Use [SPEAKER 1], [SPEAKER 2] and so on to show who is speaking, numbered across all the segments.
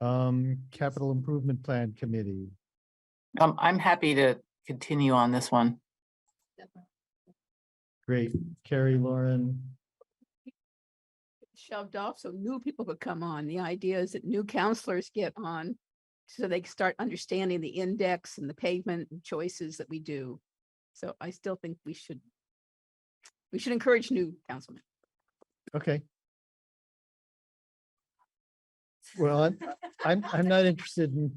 [SPEAKER 1] Um, Capital Improvement Plan Committee.
[SPEAKER 2] Um, I'm happy to continue on this one.
[SPEAKER 1] Great. Carrie, Lauren,
[SPEAKER 3] shoved off so new people could come on. The idea is that new counselors get on so they can start understanding the index and the pavement and choices that we do. So I still think we should, we should encourage new councilmen.
[SPEAKER 1] okay. Well, I'm, I'm, I'm not interested in,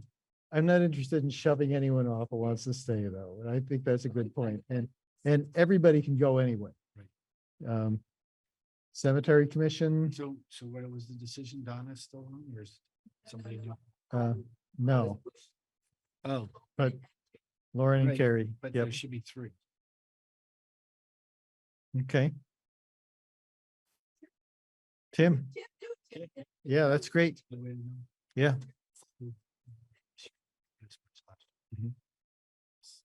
[SPEAKER 1] I'm not interested in shoving anyone off who wants to stay though. And I think that's a good point. And, and everybody can go anyway. Um, Cemetery Commission,
[SPEAKER 4] So, so what was the decision? Donna's still on or is somebody new?
[SPEAKER 1] uh, no,
[SPEAKER 4] Oh,
[SPEAKER 1] but Lauren and
[SPEAKER 4] Right,
[SPEAKER 1] Carrie,
[SPEAKER 4] but
[SPEAKER 1] yep,
[SPEAKER 4] there should be three.
[SPEAKER 1] okay. Tim, yeah, that's great.
[SPEAKER 4] The way to know.
[SPEAKER 1] Yeah. Mhm.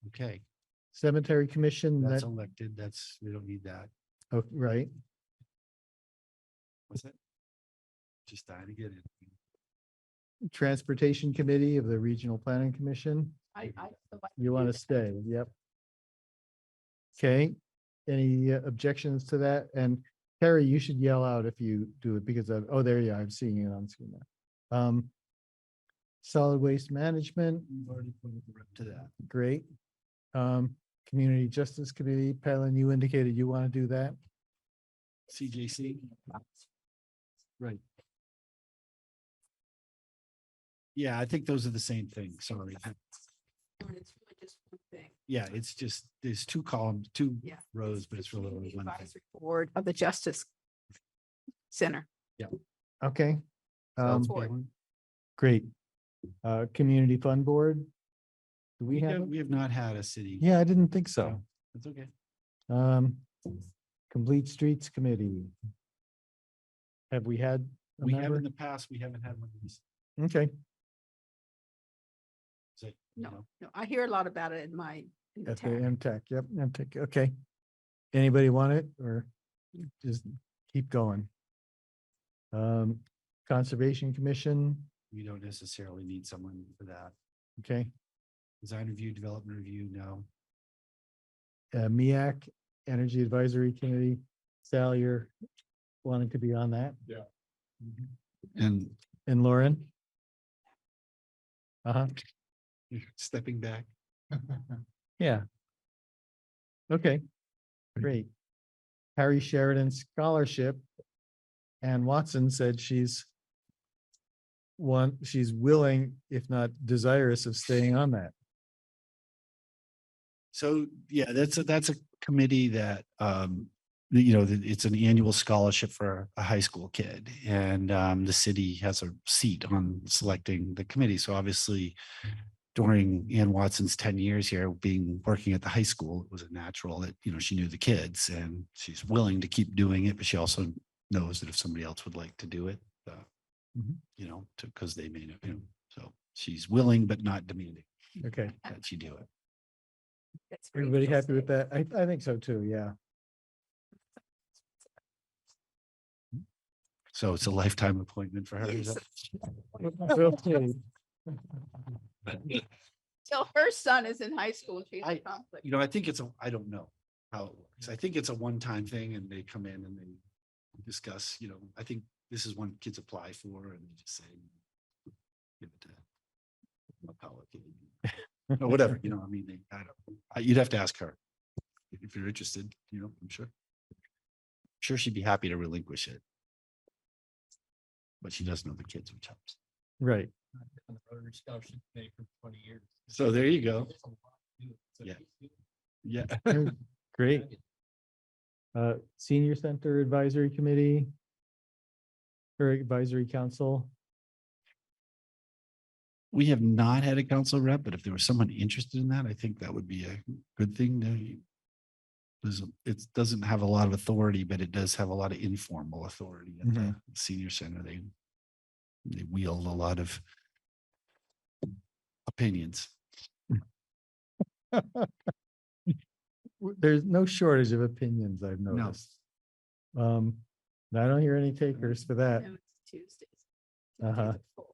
[SPEAKER 4] Okay,
[SPEAKER 1] Cemetery Commission,
[SPEAKER 4] that's
[SPEAKER 1] that,
[SPEAKER 4] elected. That's, we don't need that.
[SPEAKER 1] oh, right,
[SPEAKER 4] What's it? Just dying to get it.
[SPEAKER 1] Transportation Committee of the Regional Planning Commission,
[SPEAKER 3] I, I. so I-
[SPEAKER 1] you want to stay, yep. Okay, any uh, objections to that? And Terry, you should yell out if you do it because of, oh, there you are, I'm seeing it on screen now. Um, Solid Waste Management,
[SPEAKER 4] We've already pointed the rep to that.
[SPEAKER 1] great. Um, Community Justice Committee, Palin, you indicated you want to do that.
[SPEAKER 4] CJC. Right. Yeah, I think those are the same thing. Sorry.
[SPEAKER 3] And it's really just one thing.
[SPEAKER 4] Yeah, it's just, there's two columns, two
[SPEAKER 3] Yeah.
[SPEAKER 4] rows, but it's really only
[SPEAKER 3] the
[SPEAKER 4] one thing.
[SPEAKER 3] advisory Board of the Justice Center.
[SPEAKER 1] Okay. Um,
[SPEAKER 3] Sounds Board.
[SPEAKER 1] great. Uh, Community Fund Board? Do we
[SPEAKER 4] We
[SPEAKER 1] have?
[SPEAKER 4] have,
[SPEAKER 1] it?
[SPEAKER 4] we have not had a city.
[SPEAKER 1] Yeah, I didn't think
[SPEAKER 4] Yeah.
[SPEAKER 1] so.
[SPEAKER 4] That's okay.
[SPEAKER 1] Um, Complete Streets Committee. Have we had? a
[SPEAKER 4] We have
[SPEAKER 1] member?
[SPEAKER 4] in the past, we haven't had one of these.
[SPEAKER 1] Okay,
[SPEAKER 4] So, you
[SPEAKER 3] No.
[SPEAKER 4] know,
[SPEAKER 3] No, I hear a lot about it in my. in the
[SPEAKER 1] at the
[SPEAKER 3] town.
[SPEAKER 1] MTech, yep, MTech, okay. Anybody want it or just keep going? Um, Conservation Commission,
[SPEAKER 4] We don't necessarily need someone for that.
[SPEAKER 1] okay,
[SPEAKER 4] Design review, development review, no.
[SPEAKER 1] uh, MIAC, Energy Advisory Committee. Sal, you're wanting to be on that?
[SPEAKER 4] And
[SPEAKER 1] And Lauren? Uh huh,
[SPEAKER 4] stepping back.
[SPEAKER 1] yeah. Okay, great. Harry Sheridan Scholarship. Ann Watson said she's one, she's willing, if not desirous of staying on that.
[SPEAKER 4] So, yeah, that's a, that's a committee that, um, that, you know, that it's an annual scholarship for a high school kid. And, um, the city has a seat on selecting the committee. So obviously during Ann Watson's ten years here, being, working at the high school, it was a natural that, you know, she knew the kids and she's willing to keep doing it, but she also knows that if somebody else would like to do it, uh,
[SPEAKER 1] Mhm.
[SPEAKER 4] you know, to, because they may know, you know, so she's willing but not demanding
[SPEAKER 1] Okay,
[SPEAKER 4] that she do it.
[SPEAKER 3] That's great.
[SPEAKER 1] everybody happy with that? I, I think so too, yeah.
[SPEAKER 4] So it's a lifetime appointment for her. is
[SPEAKER 3] Yes.
[SPEAKER 4] that-
[SPEAKER 1] Okay.
[SPEAKER 3] Till her son is in high school, she's
[SPEAKER 4] I-
[SPEAKER 3] in conflict.
[SPEAKER 4] You know, I think it's a, I don't know how it works. I think it's a one-time thing and they come in and they discuss, you know, I think this is one kids apply for and they just say. give it to Apollo kid," Or whatever, you know, I mean, they, I don't, I- you'd have to ask her. If you're interested, you know, I'm sure. Sure, she'd be happy to relinquish it. But she does know the kids, which helps.
[SPEAKER 1] Right,
[SPEAKER 5] on the Rotary Scholarship Committee for twenty years.
[SPEAKER 4] So there you go.
[SPEAKER 5] There's a lot to do, so
[SPEAKER 4] Yeah.
[SPEAKER 5] keep doing
[SPEAKER 4] Yeah.
[SPEAKER 1] great.
[SPEAKER 5] it.
[SPEAKER 1] Uh, Senior Center Advisory Committee. Or Advisory Council.
[SPEAKER 4] We have not had a council rep, but if there was someone interested in that, I think that would be a good thing to. There's, a- it doesn't have a lot of authority, but it does have a lot of informal authority at the senior center. They. They wield a lot of. Opinions.
[SPEAKER 1] w- there's no shortage of opinions, I've
[SPEAKER 4] No.
[SPEAKER 1] noticed. Um, and I don't hear any takers for that.
[SPEAKER 3] No, it's Tuesdays.
[SPEAKER 1] Uh-huh.
[SPEAKER 3] Tuesdays at four.